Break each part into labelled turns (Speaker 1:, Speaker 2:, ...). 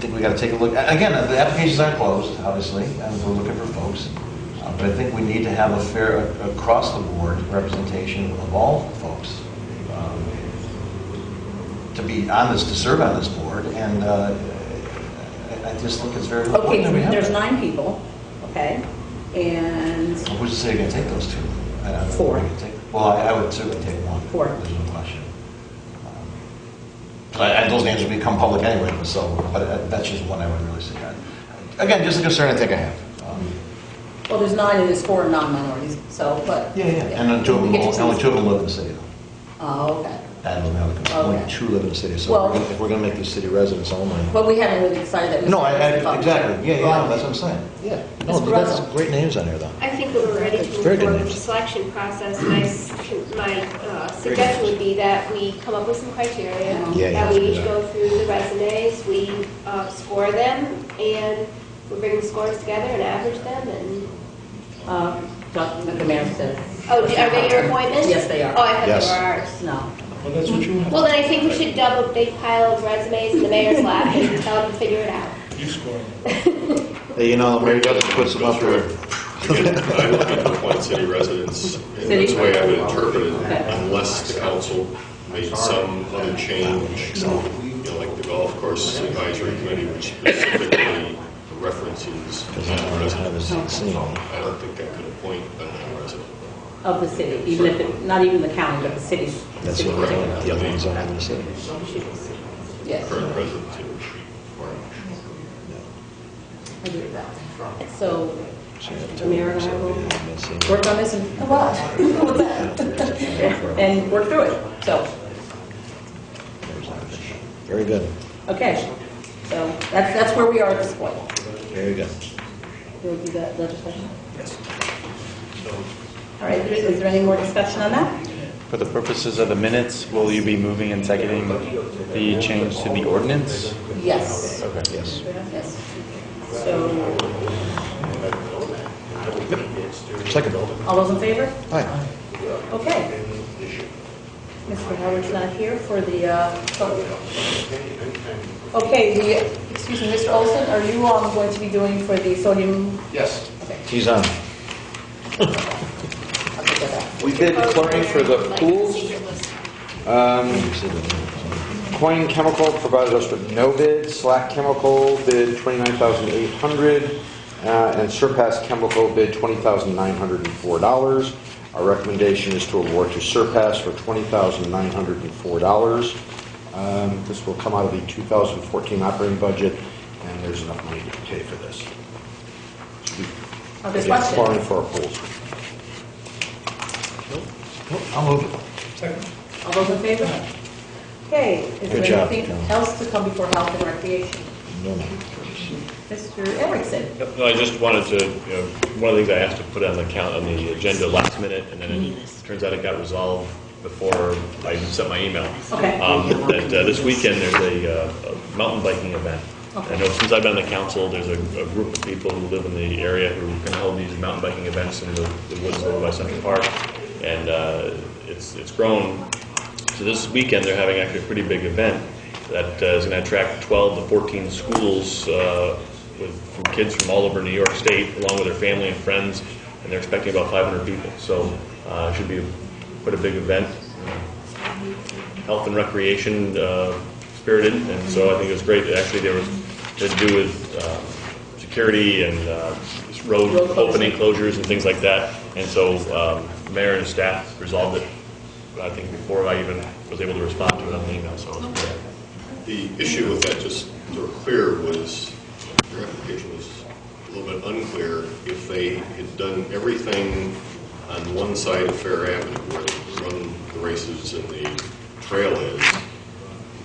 Speaker 1: think we gotta take a look, a- again, the applications aren't closed, obviously, and we're looking for folks. Uh, But I think we need to have a fair, a- across-the-board representation of all folks um, to be on this, to serve on this board, and uh, I I just think it's very
Speaker 2: Okay,
Speaker 1: important that we have.
Speaker 2: there's
Speaker 1: that.
Speaker 2: nine people, okay? And,
Speaker 1: Who's to say you're gonna take those two? I don't know.
Speaker 2: Four.
Speaker 1: Well, I I would certainly take one.
Speaker 2: Four.
Speaker 1: There's no question. Um, But I- I- those names will become public anyway, so, but uh, that's just one I would really see. Again, just a concern I think I have. Um,
Speaker 2: well, there's nine and there's four non-minorities, so, but.
Speaker 1: Yeah, yeah, and then two of
Speaker 2: We
Speaker 1: them,
Speaker 2: get to
Speaker 1: only
Speaker 2: choose.
Speaker 1: two of them live in the city.
Speaker 2: Oh, okay.
Speaker 1: That was another concern. Only
Speaker 2: Okay.
Speaker 1: two live in the city, so
Speaker 2: Well-
Speaker 1: we're gonna- if we're gonna make these city residents only.
Speaker 2: But we haven't really decided that.
Speaker 1: No, I, I- exactly, yeah, yeah,
Speaker 2: Right.
Speaker 1: no, that's what I'm saying, yeah. No,
Speaker 2: Mr.
Speaker 1: that's
Speaker 2: Russell.
Speaker 1: great names on here, though.
Speaker 3: I think that we're ready to move
Speaker 1: Very good
Speaker 3: forward with the
Speaker 1: news.
Speaker 3: selection process, and I s- my uh, suggestion would be that we come up with some criteria.
Speaker 1: Yeah, yeah,
Speaker 3: That we
Speaker 1: yeah.
Speaker 3: each go through the resumes, we uh, score them, and we bring the scores together and average them, and,
Speaker 2: Uh, Dr. The mayor says.
Speaker 3: oh, d- are they your appointments?
Speaker 2: Yes, they
Speaker 3: Oh,
Speaker 2: are.
Speaker 3: I
Speaker 1: Yes.
Speaker 3: thought they were ours.
Speaker 2: No.
Speaker 4: Well, that's what you
Speaker 3: Well,
Speaker 4: have.
Speaker 3: then I think we should dump a big pile of resumes in the mayor's lap and tell him to figure it out.
Speaker 4: You score.
Speaker 1: Hey, you know, Mary Douglas puts them up there.
Speaker 5: Again, I'm looking to appoint city residents, and that's the way I would interpret it, unless the council made some other change, you know, like the golf course advisory committee, which specifically references non-residents. I don't think I could appoint a non-resident.
Speaker 2: Of the city, even if, it- not even the county, but the city.
Speaker 1: That's
Speaker 2: city
Speaker 1: what we're
Speaker 2: particular.
Speaker 1: doing, the other ones aren't in the city.
Speaker 2: Yes,
Speaker 5: Current residents here.
Speaker 2: I agree with that. So, the mayor and I will work on this and, and work through it, so.
Speaker 1: Very good,
Speaker 2: Okay, so that's, that's where we are at this point.
Speaker 1: very good.
Speaker 2: We'll do that legislation. Yes. All right, is there any more discussion on that?
Speaker 6: For the purposes of the minutes, will you be moving and seconding the change to the ordinance?
Speaker 2: Yes,
Speaker 6: Okay.
Speaker 1: Yes.
Speaker 2: yes. So,
Speaker 1: Second.
Speaker 2: all those in favor?
Speaker 1: Aye.
Speaker 2: Okay. Mr. Howard's not here for the, uh, public- okay, the, excuse me, Mr. Olson, are you um, going to be doing for the sodium?
Speaker 4: Yes.
Speaker 1: He's on.
Speaker 2: I'll take that back.
Speaker 7: We've been chlorine for the
Speaker 3: Like,
Speaker 7: pools.
Speaker 3: secret list.
Speaker 7: Um, Coin Chemical provided us with no bid. Slack Chemical bid 29800 uh, and Surpass Chemical bid $20,904. Our recommendation is to award to Surpass for $20,904. Um, This will come out of the 2014 operating budget, and there's enough money to pay for this.
Speaker 2: Other
Speaker 7: Again, Chlorine
Speaker 2: questions?
Speaker 7: for our pools.
Speaker 1: I'll move it.
Speaker 4: Second.
Speaker 2: All those in favor? Okay, is
Speaker 1: Good
Speaker 2: there
Speaker 1: job,
Speaker 2: anything
Speaker 1: John.
Speaker 2: else to come before health and recreation?
Speaker 1: No, no.
Speaker 2: Mr. Erickson?
Speaker 5: No, I just wanted to, you know, one of the things I asked to put on the count, on the agenda last minute, and then it turns out it got resolved before I even sent my email.
Speaker 2: Okay.
Speaker 5: Um, That uh, this weekend, there's a uh, a mountain biking event. I know since I've been on the council, there's a a group of people who live in the area who can hold these mountain biking events in the the woods over by Central Park, and uh, it's it's grown so this weekend, they're having actually a pretty big event that uh, is going to attract 12 to 14 schools uh, with, from kids from all over New York State, along with their family and friends, and they're expecting about 500 people. So uh, it should be quite a big event. Health and recreation uh, spirited, and so I think it was great. Actually, there was, had to do with uh, security and uh, road
Speaker 2: Road closing.
Speaker 5: opening closures and things like that. And so um, the mayor and his staff resolved it, I think, before I even was able to respond to it on the email, so it was good.
Speaker 8: The issue with that, just to be clear, was your application was a little bit unclear. If they had done everything on one side of Fair Avenue where they run the races and the trail is,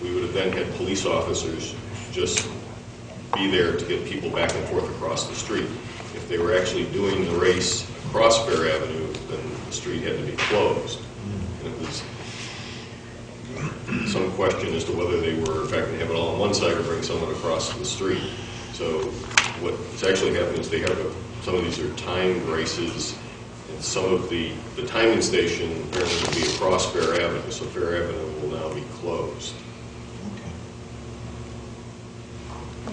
Speaker 8: we would have then had police officers just be there to get people back and forth across the street. If they were actually doing the race across Fair Avenue, then the street had to be closed. And it was some question as to whether they were, in fact, going to have it all on one side or bring someone across the street. So what's actually happening is they have, a- some of these are timed races, and some of the, the timing station apparently will be across Fair Avenue, so Fair Avenue will now be closed.